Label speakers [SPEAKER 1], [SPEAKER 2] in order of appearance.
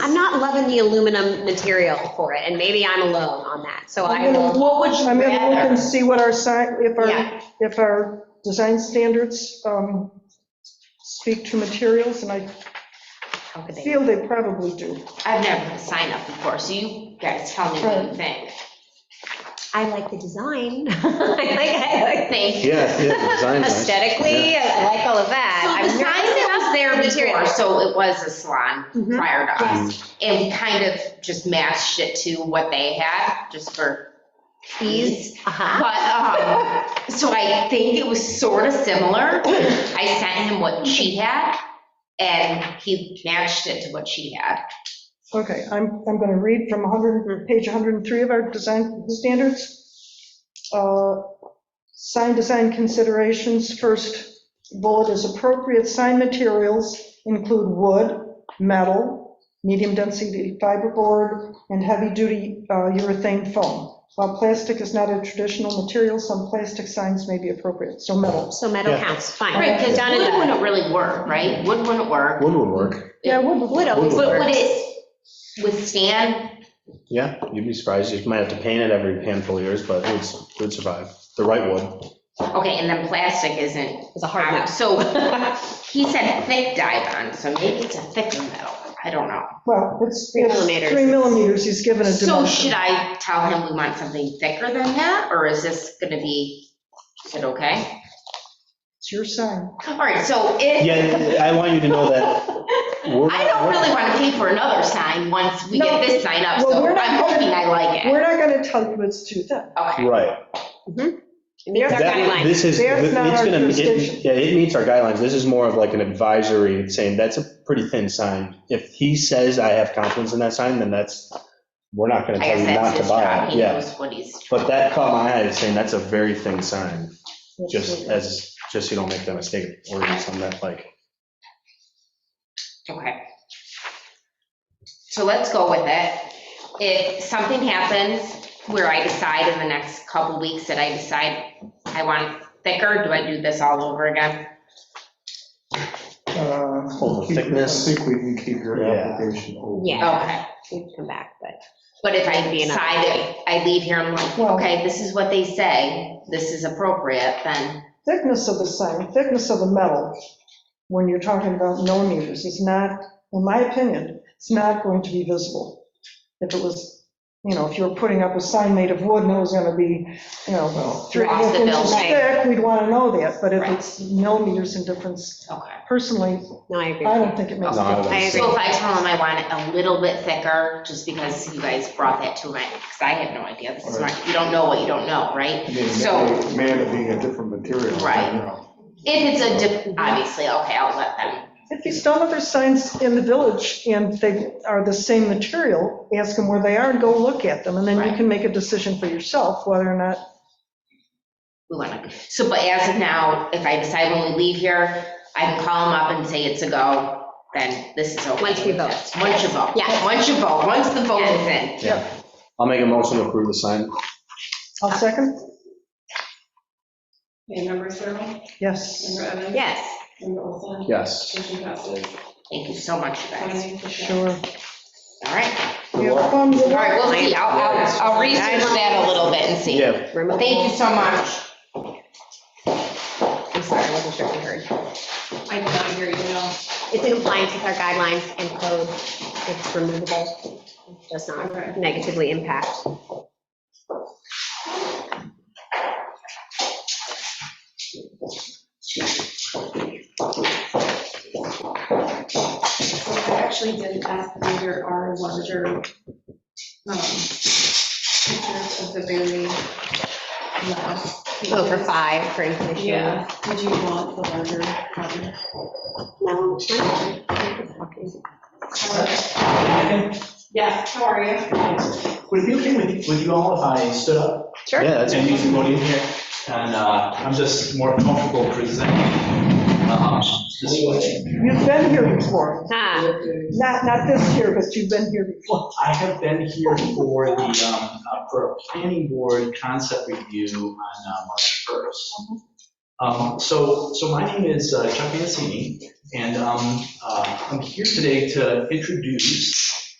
[SPEAKER 1] I'm not loving the aluminum material for it, and maybe I'm alone on that, so I
[SPEAKER 2] I'm
[SPEAKER 1] will,
[SPEAKER 2] gonna look- I'm gonna look
[SPEAKER 1] rather-
[SPEAKER 2] and see what our sign, if
[SPEAKER 1] Yeah.
[SPEAKER 2] our, if our design standards um, speak to materials, and I
[SPEAKER 1] how could they?
[SPEAKER 2] feel they probably do.
[SPEAKER 3] I've never signed up before, so you guys tell me what you think.
[SPEAKER 1] I like the design. I like, I like
[SPEAKER 3] Thank you.
[SPEAKER 4] Yeah, yeah, design's nice.
[SPEAKER 1] aesthetically, I like all of that.
[SPEAKER 3] So
[SPEAKER 1] I've
[SPEAKER 3] the sign
[SPEAKER 1] never
[SPEAKER 3] that was there
[SPEAKER 1] seen the
[SPEAKER 3] before,
[SPEAKER 1] material.
[SPEAKER 3] so it was a salon
[SPEAKER 1] Mhm.
[SPEAKER 3] prior to us.
[SPEAKER 4] Mm,
[SPEAKER 3] And we kind of just matched it to what they had, just for ease.
[SPEAKER 1] Uh-huh.
[SPEAKER 3] But, um, so I think it was sort of similar. I sent him what she had, and he matched it to what she had.
[SPEAKER 2] Okay, I'm, I'm gonna read from 100, page 103 of our design standards. Uh, Sign design considerations, first bullet is appropriate sign materials include wood, metal, medium density fiberboard, and heavy-duty uh, urethane foam. While plastic is not a traditional material, some plastic signs may be appropriate, so metal.
[SPEAKER 1] So metal
[SPEAKER 4] Yeah.
[SPEAKER 1] counts, fine.
[SPEAKER 3] Right, because
[SPEAKER 1] Done and
[SPEAKER 3] wood
[SPEAKER 1] done.
[SPEAKER 3] wouldn't really work, right? Wood wouldn't work.
[SPEAKER 4] Wood would work,
[SPEAKER 2] Yeah, wood
[SPEAKER 1] Wood always
[SPEAKER 3] But would
[SPEAKER 1] works.
[SPEAKER 3] it withstand?
[SPEAKER 4] yeah, you'd be surprised, you might have to paint it every handful of years, but it would, s- it would survive, the right wood.
[SPEAKER 3] Okay, and then plastic isn't.
[SPEAKER 1] It's a hard no.
[SPEAKER 3] So he said thick dye bond, so maybe it's a thick metal. I don't know.
[SPEAKER 2] Well, it's,
[SPEAKER 1] Three
[SPEAKER 2] it's
[SPEAKER 1] millimeters.
[SPEAKER 2] three millimeters, he's given a
[SPEAKER 3] So
[SPEAKER 2] dimension.
[SPEAKER 3] should I tell him we want something thicker than that, or is this gonna be, is it okay?
[SPEAKER 2] It's your sign.
[SPEAKER 3] All right, so if.
[SPEAKER 4] Yeah, I want you to know that we're.
[SPEAKER 3] I don't really want to pay for another sign once we get this sign up,
[SPEAKER 2] Well,
[SPEAKER 3] so
[SPEAKER 2] we're not-
[SPEAKER 3] I'm hoping I like it.
[SPEAKER 2] We're not gonna tell you it's too thick.
[SPEAKER 3] Okay,
[SPEAKER 4] Right.
[SPEAKER 1] And these are
[SPEAKER 4] That-
[SPEAKER 1] guidelines.
[SPEAKER 4] This is,
[SPEAKER 2] That's
[SPEAKER 4] it's
[SPEAKER 2] not our
[SPEAKER 4] gonna,
[SPEAKER 2] jurisdiction.
[SPEAKER 4] it- yeah, it meets our guidelines, this is more of like an advisory, it's saying, that's a pretty thin sign. If he says I have confidence in that sign, then that's, we're not gonna
[SPEAKER 3] I
[SPEAKER 4] tell you
[SPEAKER 3] guess
[SPEAKER 4] not
[SPEAKER 3] that's
[SPEAKER 4] to
[SPEAKER 3] his
[SPEAKER 4] buy
[SPEAKER 3] job,
[SPEAKER 4] it,
[SPEAKER 3] he
[SPEAKER 4] yeah.
[SPEAKER 3] knows what he's.
[SPEAKER 4] But that caught my eye, it's saying that's a very thin sign, just as, just so you don't make that mistake, of ordering something that like,
[SPEAKER 3] Okay. So let's go with it. If something happens where I decide in the next couple weeks that I decide I want it thicker, do I do this all over again?
[SPEAKER 5] Uh,
[SPEAKER 4] Full of thickness.
[SPEAKER 5] I think we can keep your
[SPEAKER 4] Yeah.
[SPEAKER 5] application open.
[SPEAKER 1] Yeah,
[SPEAKER 3] Okay.
[SPEAKER 1] we'd come back, but
[SPEAKER 3] But if I
[SPEAKER 1] Might be enough.
[SPEAKER 3] decide, that I leave here, I'm like,
[SPEAKER 2] Well-
[SPEAKER 3] okay, this is what they say, this is appropriate, then,
[SPEAKER 2] Thickness of the sign, thickness of the metal, when you're talking about millimeters, is not, in my opinion, it's not going to be visible. If it was, you know, if you were putting up a sign made of wood and it was gonna be, you know, three and a half
[SPEAKER 3] Across the
[SPEAKER 2] inches
[SPEAKER 3] building.
[SPEAKER 2] thick, we'd wanna know that, but if
[SPEAKER 3] Right.
[SPEAKER 2] it's millimeters in difference,
[SPEAKER 3] okay.
[SPEAKER 2] personally,
[SPEAKER 1] no, I agree.
[SPEAKER 2] I
[SPEAKER 1] with
[SPEAKER 2] don't
[SPEAKER 1] you.
[SPEAKER 2] think it makes a
[SPEAKER 4] No, I
[SPEAKER 2] difference.
[SPEAKER 4] wouldn't.
[SPEAKER 1] I agree.
[SPEAKER 3] So if I tell him I want it a little bit thicker, just because you guys brought that to my, because I have no idea, this is not, you don't know what you don't know, right?
[SPEAKER 5] I mean,
[SPEAKER 3] So-
[SPEAKER 5] Man it being a different material. you
[SPEAKER 3] Right.
[SPEAKER 5] know.
[SPEAKER 3] If it's a, diff- obviously, okay, I'll let them,
[SPEAKER 2] If he's done other signs in the village and they are the same material, ask him where they are and go look at them, and then you
[SPEAKER 3] Right.
[SPEAKER 2] can make a decision for yourself whether or not
[SPEAKER 3] we want to, so, but as of now, if I decide when we leave here, I can call him up and say it's a go, then this is okay.
[SPEAKER 1] Once we vote.
[SPEAKER 3] Once you vote.
[SPEAKER 1] Yes.
[SPEAKER 3] Once you vote, once the vote is in.
[SPEAKER 4] yeah. I'll make a motion to approve the sign.
[SPEAKER 2] I'll second,
[SPEAKER 6] Okay, member Cyril,
[SPEAKER 2] yes.
[SPEAKER 6] member Evans,
[SPEAKER 1] Yes,
[SPEAKER 6] member Olson.
[SPEAKER 4] Yes.
[SPEAKER 6] Motion passes.
[SPEAKER 3] Thank you so much, you guys.
[SPEAKER 6] Twenty, fifteen.
[SPEAKER 2] Sure.
[SPEAKER 3] All right,
[SPEAKER 2] You have fun,
[SPEAKER 3] all
[SPEAKER 2] good luck.
[SPEAKER 3] right, we'll see, I'll, I'll, I'll research that a little bit and see.
[SPEAKER 4] Yeah,
[SPEAKER 1] remote.
[SPEAKER 3] Thank you so much.
[SPEAKER 1] I'm sorry, I wasn't sure if you heard.
[SPEAKER 6] I did not hear you, no.
[SPEAKER 1] It's in compliance with our guidelines and code. It's removable, does not negatively impact.
[SPEAKER 6] So I actually didn't ask if there are larger, um, pictures of the very last.
[SPEAKER 1] Oh, for five, for information.
[SPEAKER 6] Yeah, would you want the larger? copy?
[SPEAKER 1] No. I
[SPEAKER 6] Yes, how are you?
[SPEAKER 7] Would it be okay with, with you all if I stood up
[SPEAKER 1] Sure.
[SPEAKER 4] yeah, that's,
[SPEAKER 7] and you can go in here? And uh, I'm just more comfortable presenting um, this way.
[SPEAKER 2] You've been here before,
[SPEAKER 1] Ah,
[SPEAKER 2] not, not this year, but you've been here before.
[SPEAKER 7] I have been here for the, um, uh, for a planning board concept review on uh, March 1st. Um, So, so my name is uh, Chuck Mancini, and um, uh, I'm here today to introduce